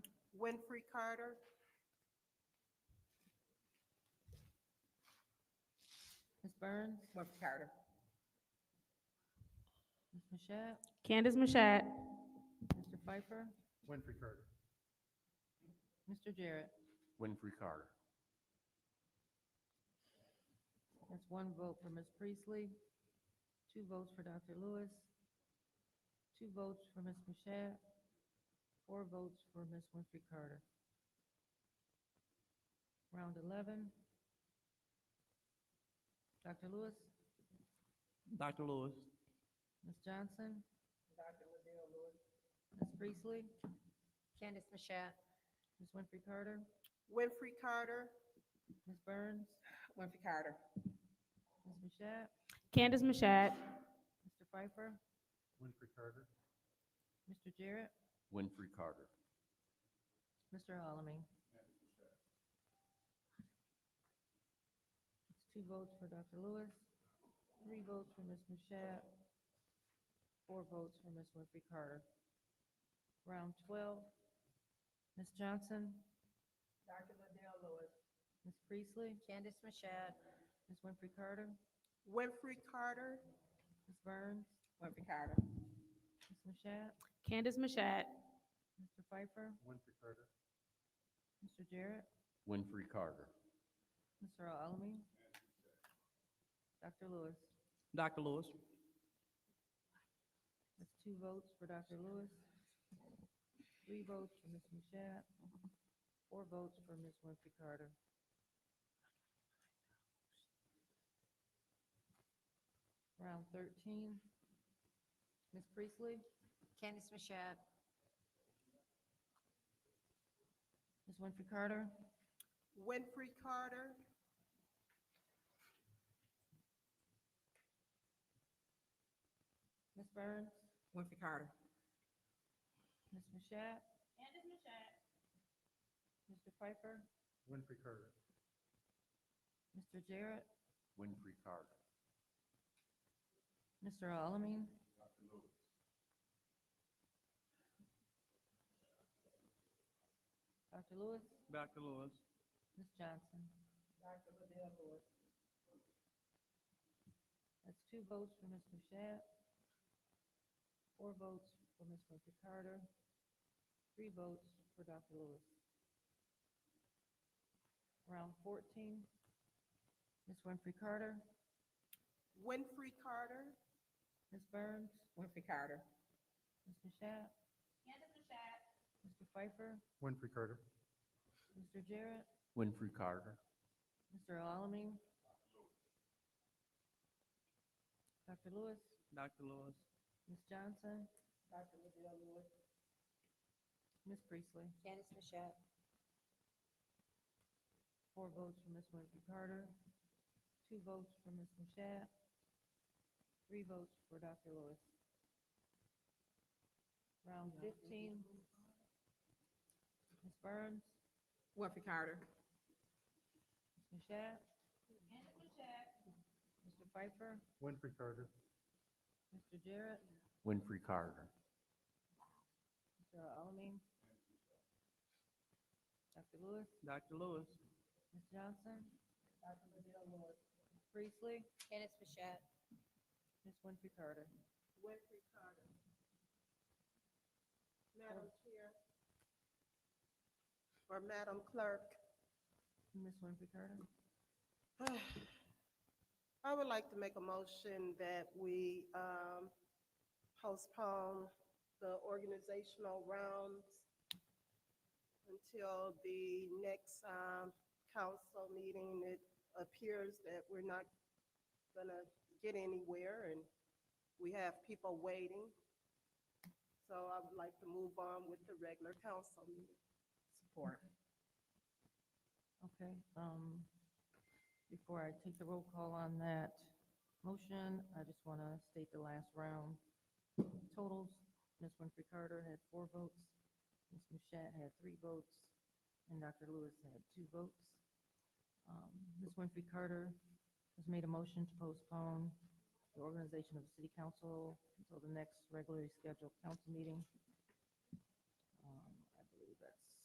Winfrey Carter. Ms. Burns? Winfrey Carter. Ms. Mashat? Candace Mashat. Mr. Pfeiffer? Winfrey Carter. Mr. Jarrett? Winfrey Carter. That's one vote for Ms. Priestley, two votes for Dr. Lewis, two votes for Ms. Mashat, four votes for Ms. Winfrey Carter. Round 11. Dr. Lewis, Dr. Lewis. Ms. Johnson, Dr. Liddell Lewis. Ms. Priestley, Candace Mashat. Ms. Winfrey Carter, Winfrey Carter. Ms. Burns, Winfrey Carter. Ms. Mashat, Candace Mashat. Mr. Pfeiffer, Winfrey Carter. Mr. Jarrett, Winfrey Carter. Mr. Alamin. It's two votes for Dr. Lewis, three votes for Ms. Mashat, four votes for Ms. Winfrey Carter. Round twelve, Ms. Johnson, Dr. Liddell Lewis. Ms. Priestley, Candace Mashat. Ms. Winfrey Carter, Winfrey Carter. Ms. Burns, Winfrey Carter. Ms. Mashat, Candace Mashat. Mr. Pfeiffer, Winfrey Carter. Mr. Jarrett, Winfrey Carter. Mr. Alamin, Dr. Lewis. Dr. Lewis. That's two votes for Dr. Lewis, three votes for Ms. Mashat, four votes for Ms. Winfrey Carter. Round thirteen, Ms. Priestley, Candace Mashat. Ms. Winfrey Carter, Winfrey Carter. Ms. Burns, Winfrey Carter. Ms. Mashat. Mr. Pfeiffer, Winfrey Carter. Mr. Jarrett, Winfrey Carter. Mr. Alamin. Dr. Lewis, Dr. Lewis. Ms. Johnson. Dr. Liddell Lewis. That's two votes for Ms. Mashat, four votes for Ms. Winfrey Carter, three votes for Dr. Lewis. Round fourteen, Ms. Winfrey Carter, Winfrey Carter. Ms. Burns, Winfrey Carter. Ms. Mashat. Mr. Pfeiffer, Winfrey Carter. Mr. Jarrett, Winfrey Carter. Mr. Alamin. Dr. Lewis, Dr. Lewis. Ms. Johnson, Dr. Liddell Lewis. Ms. Priestley. Candace Mashat. Four votes for Ms. Winfrey Carter, two votes for Ms. Mashat, three votes for Dr. Lewis. Round fifteen. Ms. Burns, Winfrey Carter. Ms. Mashat. Mr. Pfeiffer, Winfrey Carter. Mr. Jarrett, Winfrey Carter. Mr. Alamin. Dr. Lewis, Dr. Lewis. Ms. Johnson. Dr. Liddell Lewis. Ms. Priestley, Candace Mashat. Ms. Winfrey Carter. Winfrey Carter. Madam Chair. Or Madam Clerk. Ms. Winfrey Carter. I would like to make a motion that we um, postpone the organizational rounds until the next um, council meeting. It appears that we're not gonna get anywhere and we have people waiting. So I would like to move on with the regular council meeting. Support. Okay, um, before I take the roll call on that motion, I just want to state the last round totals. Ms. Winfrey Carter had four votes, Ms. Mashat had three votes, and Dr. Lewis had two votes. Um, Ms. Winfrey Carter has made a motion to postpone the organization of the city council until the next regularly scheduled council meeting Um,